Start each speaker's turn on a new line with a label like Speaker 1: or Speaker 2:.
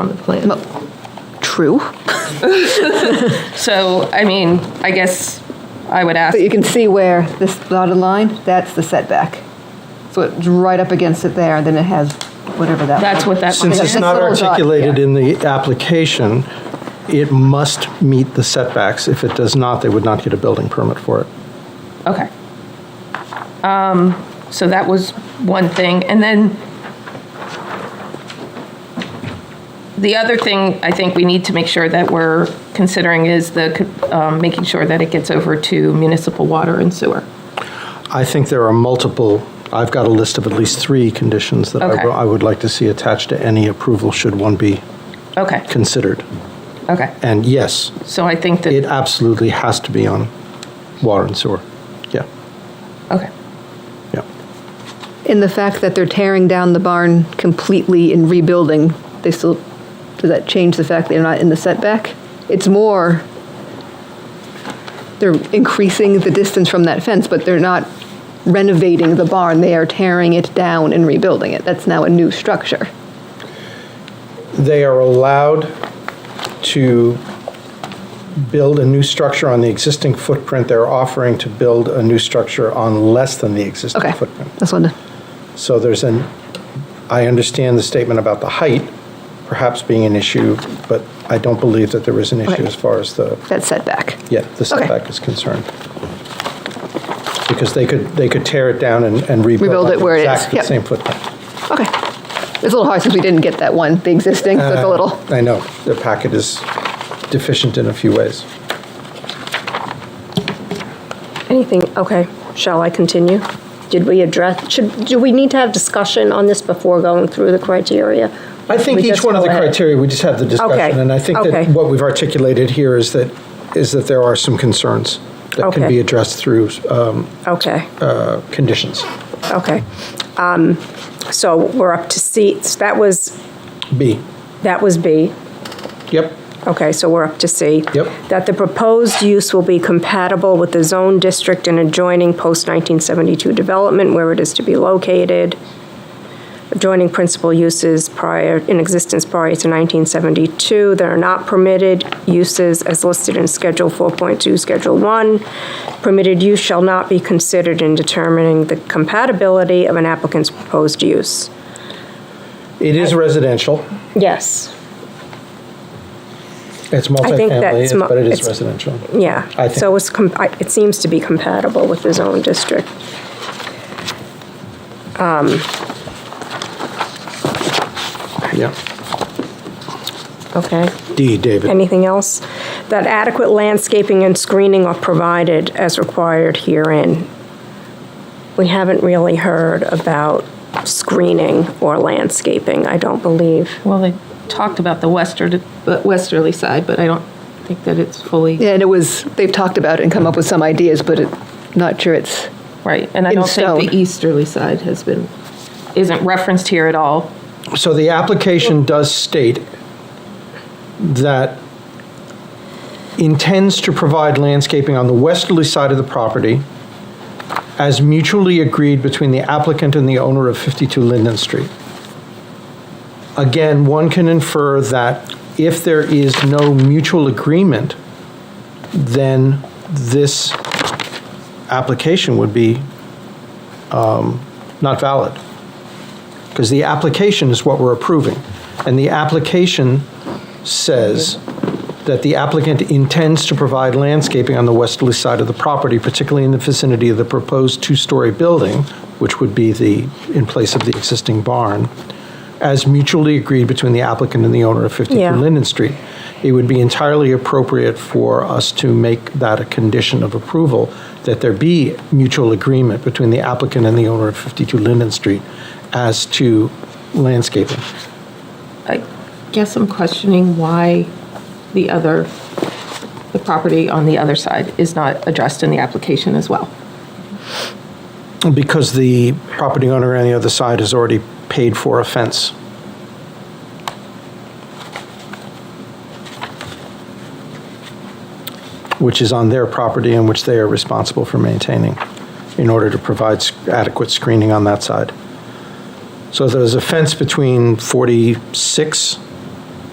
Speaker 1: on the plan.
Speaker 2: True.
Speaker 1: So, I mean, I guess I would ask,
Speaker 2: But you can see where this dotted line, that's the setback. So it's right up against it there, and then it has whatever that.
Speaker 1: that's what that
Speaker 3: Since
Speaker 1: line
Speaker 3: it's
Speaker 1: is.
Speaker 2: Yeah,
Speaker 3: not
Speaker 2: that's a little dot,
Speaker 3: articulated
Speaker 2: yeah.
Speaker 3: in the application, it must meet the setbacks. If it does not, they would not get a building permit for it.
Speaker 1: Okay. Um, so that was one thing, and then the other thing I think we need to make sure that we're considering is the, um, making sure that it gets over to municipal water and sewer.
Speaker 3: I think there are multiple, I've got a list of at least three conditions that I
Speaker 1: Okay.
Speaker 3: w- I would like to see attached to any approval should one be
Speaker 1: Okay,
Speaker 3: considered.
Speaker 1: okay,
Speaker 3: And yes,
Speaker 1: so I think
Speaker 3: it
Speaker 1: that,
Speaker 3: absolutely has to be on water and sewer. Yeah,
Speaker 1: okay,
Speaker 3: yeah.
Speaker 2: In the fact that they're tearing down the barn completely and rebuilding, they still, does that change the fact they're not in the setback? It's more, they're increasing the distance from that fence, but they're not renovating the barn. They are tearing it down and rebuilding it. That's now a new structure.
Speaker 3: They are allowed to build a new structure on the existing footprint. They're offering to build a new structure on less than the existing
Speaker 2: Okay,
Speaker 3: footprint.
Speaker 2: that's one.
Speaker 3: So there's an, I understand the statement about the height perhaps being an issue, but I don't believe that there is an issue
Speaker 2: Okay.
Speaker 3: as far as the,
Speaker 2: That setback.
Speaker 3: yeah, the setback is concerned. Because they could, they could tear it down and and rebuild.
Speaker 2: Rebuild
Speaker 3: on
Speaker 2: it where it is,
Speaker 3: Exactly the
Speaker 2: yep.
Speaker 3: same footprint.
Speaker 2: Okay. It's a little hard since we didn't get that one, the existing, so
Speaker 3: Uh.
Speaker 2: it's a little,
Speaker 3: I know, the packet is deficient in a few ways.
Speaker 4: Anything, okay, shall I continue? Did we address, should, do we need to have discussion on this before going through the criteria?
Speaker 3: I think
Speaker 4: We
Speaker 3: each
Speaker 4: just
Speaker 3: one of
Speaker 4: go
Speaker 3: the
Speaker 4: ahead.
Speaker 3: criteria, we just had the
Speaker 4: Okay,
Speaker 3: discussion, and I think that
Speaker 4: okay.
Speaker 3: what we've articulated here is that, is that there are some concerns that can
Speaker 4: Okay.
Speaker 3: be addressed through um,
Speaker 4: Okay,
Speaker 3: uh, conditions.
Speaker 4: okay. Um, So we're up to C, that was,
Speaker 3: B.
Speaker 4: that was B.
Speaker 3: Yep.
Speaker 4: Okay, so we're up to C.
Speaker 3: Yep.
Speaker 4: That the proposed use will be compatible with the zone district and adjoining post-1972 development where it is to be located, adjoining principal uses prior, in existence prior to 1972 that are not permitted uses as listed in Schedule 4.2, Schedule 1. Permitted use shall not be considered in determining the compatibility of an applicant's proposed use.
Speaker 3: It is residential.
Speaker 4: Yes.
Speaker 3: It's
Speaker 4: think that's
Speaker 3: multifamily,
Speaker 4: mu-
Speaker 3: but it is
Speaker 4: it's-
Speaker 3: residential.
Speaker 4: Yeah.
Speaker 3: I
Speaker 4: So
Speaker 3: think-
Speaker 4: it's, com- I- it seems to be compatible with the zone district.
Speaker 3: Yeah.
Speaker 4: Okay.
Speaker 3: D, David.
Speaker 4: Anything else? That adequate landscaping and screening are provided as required herein. We haven't really heard about screening or landscaping, I don't believe.
Speaker 1: well, they talked about the western, but westerly side, but I don't think that it's fully,
Speaker 2: yeah, and it was, they've talked about it and come up with some ideas, but it, not sure it's,
Speaker 1: right, and I
Speaker 2: In
Speaker 1: don't think
Speaker 2: stone.
Speaker 1: the easterly side has been, isn't referenced here at all.
Speaker 3: So the application does state that intends to provide landscaping on the westerly side of the property as mutually agreed between the applicant and the owner of 52 Linden Street. Again, one can infer that if there is no mutual agreement, then this application would be um, not valid. Because the application is what we're approving. And the application says that the applicant intends to provide landscaping on the westerly side of the property, particularly in the vicinity of the proposed two-story building, which would be the, in place of the existing barn, as mutually agreed between the applicant and the owner of 52
Speaker 4: Yeah.
Speaker 3: Linden Street. It would be entirely appropriate for us to make that a condition of approval, that there be mutual agreement between the applicant and the owner of 52 Linden Street as to landscaping.
Speaker 1: I guess I'm questioning why the other, the property on the other side is not addressed in the application as well.
Speaker 3: Because the property owner on the other side has already paid for a fence. Which is on their property and which they are responsible for maintaining in order to provide sc- adequate screening on that side. So there's a fence between 46